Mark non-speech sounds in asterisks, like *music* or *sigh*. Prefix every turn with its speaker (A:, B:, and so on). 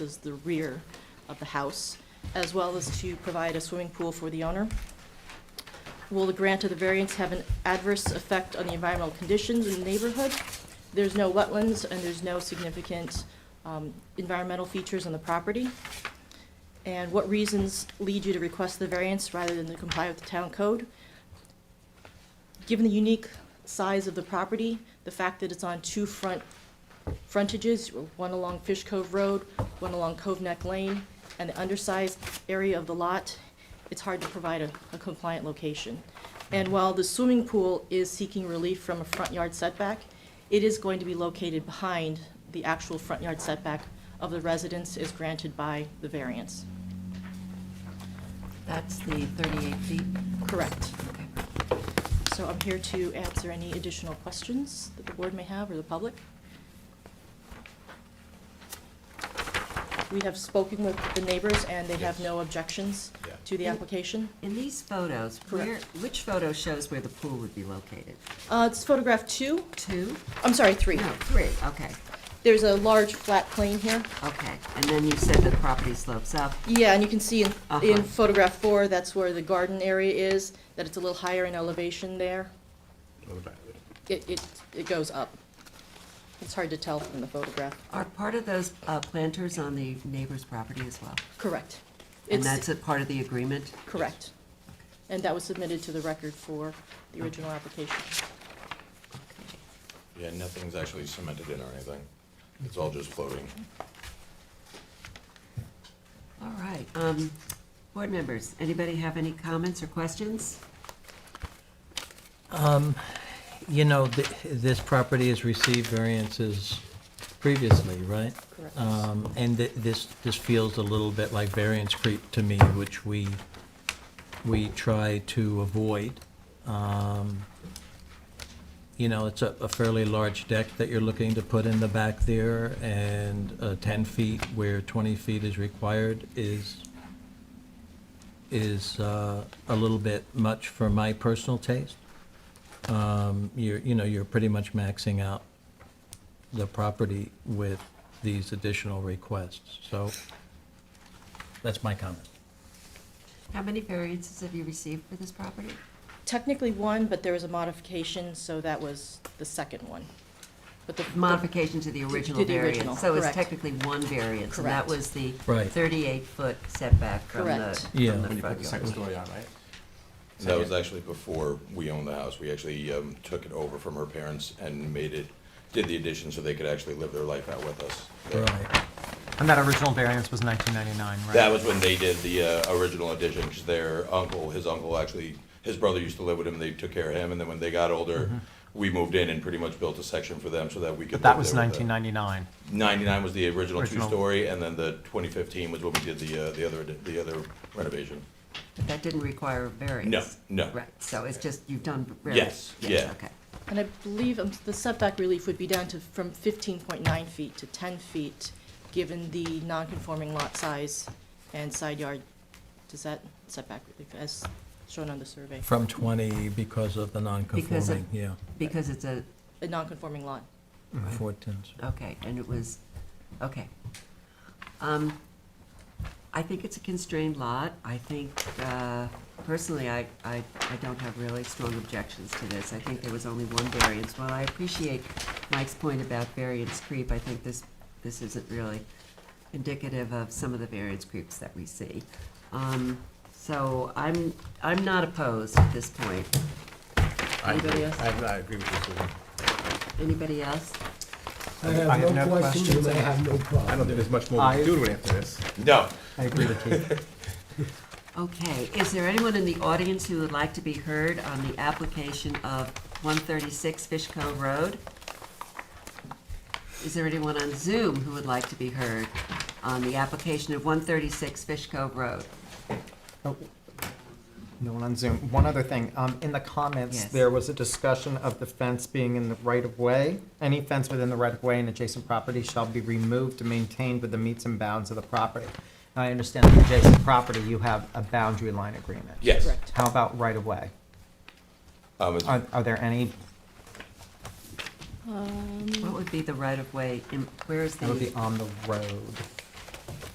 A: is the rear of the house, as well as to provide a swimming pool for the owner. Will the grant of the variance have an adverse effect on the environmental conditions in the neighborhood? There's no wetlands and there's no significant um, environmental features on the property. And what reasons lead you to request the variance rather than to comply with the town code? Given the unique size of the property, the fact that it's on two front frontages, one along Fish Cove Road, one along Cove Neck Lane, and the undersized area of the lot, it's hard to provide a a compliant location. And while the swimming pool is seeking relief from a front yard setback, it is going to be located behind the actual front yard setback of the residence as granted by the variance.
B: That's the 38 feet?
A: Correct.
B: Okay.
A: So I'm here to answer any additional questions that the board may have or the public. We have spoken with the neighbors, and they have no objections
C: Yeah.
A: to the application.
B: In these photos, where,
A: Correct.
B: which photo shows where the pool would be located?
A: Uh, It's photograph two,
B: Two?
A: I'm sorry, three.
B: No, three, okay,
A: There's a large flat plane here.
B: okay. And then you said the property slopes up.
A: Yeah, and you can see in in
B: Uh-huh.
A: photograph four, that's where the garden area is, that it's a little higher in elevation there.
C: What about it?
A: It It it goes up. It's hard to tell from the photograph.
B: Are part of those uh, planters on the neighbor's property as well?
A: Correct.
B: And
A: It's-
B: that's a part of the agreement?
A: Correct. And that was submitted to the record for the original application.
C: Yeah, nothing's actually cemented in or anything. It's all just floating.
B: All right. um, Board members, anybody have any comments or questions?
D: You know, th- this property has received variances previously, right?
A: Correct.
E: Uh,
D: Um, And th- this, this feels a little bit like variance creep to me, which we, we try to avoid. Um, You know, it's a a fairly large deck that you're looking to put in the back there, and uh, 10 feet where 20 feet is required is, is uh, a little bit much for my personal taste um, you're, you know, you're pretty much maxing out the property with these additional requests, so that's my comment.
B: How many variances have you received for this property?
A: Technically one, but there was a modification, so that was the second one. But the
B: Modification to the original
A: To the
B: variance.
A: original,
B: So it's
A: correct.
B: technically one variance, and that
A: Correct.
B: was the
D: Right.
B: 38-foot setback from the,
A: Correct.
D: Yeah.
B: from the
F: When you put
B: front
F: the
B: yard.
F: second story on, right?
C: That was actually before we owned the house. We actually um, took it over from her parents and made it, did the addition so they could actually live their life out with us. there.
D: Right,
F: And that original variance was 1999, right?
C: That was when they did the uh, original addition, because their uncle, his uncle actually, his brother used to live with him, they took care of him, and then when they got older, we moved in and pretty much built a section for them so that we could.
F: Mm-hmm. But that
C: live
F: was
C: there with them.
F: 1999.
C: 99 was the original
F: Original.
C: two-story, and then the 2015 was when we did the, uh, the other, the other renovation.
B: But that didn't require a variance.
C: No, no.
B: Right, so it's just, you've done.
C: Yes, yeah.
B: Okay.
A: And I believe um, the setback relief would be down to, from fifteen point nine feet to ten feet, given the non-conforming lot size and side yard. Does that setback relief, as shown on the survey,
D: from 20 because of the
B: Because of-
D: non-conforming, yeah,
B: Because it's a,
A: a non-conforming lot?
D: 14.
B: okay, and it was, okay. Um, I think it's a constrained lot. I think, uh, personally, I, I, I don't have really strong objections to this. I think there was only one variance. While I appreciate Mike's point about variance creep, I think this, this isn't really indicative of some of the variance creeps that we see. Um, So I'm, I'm not opposed at this point.
E: I agree.
B: Anybody else?
E: I, I agree with you, Susan.
B: Anybody else?
G: I
F: I have
G: have no
F: no
G: questions,
F: questions.
G: I have no
E: I
G: problem.
E: don't think there's much more we
F: I-
E: can do to it after this.
C: No,
F: I agree with you.
B: Okay, is there anyone in the audience who would like to be heard on the application of 136 Fish Cove Road? Is there anyone on Zoom who would like to be heard on the application of 136 Fish Cove Road?
F: *laughs* Oh, No one on Zoom. One other thing, um, in the comments,
B: Yes.
F: there was a discussion of the fence being in the right of way. Any fence within the right of way and adjacent property shall be removed and maintained with the meets and bounds of the property. I understand the adjacent property, you have a boundary line agreement.
C: yes.
A: Correct.
F: How about right of way?
C: Um, it's-
F: Are, are there any,
B: What would be the right-of-way, in- where is
F: that would be
B: the,
F: on the road?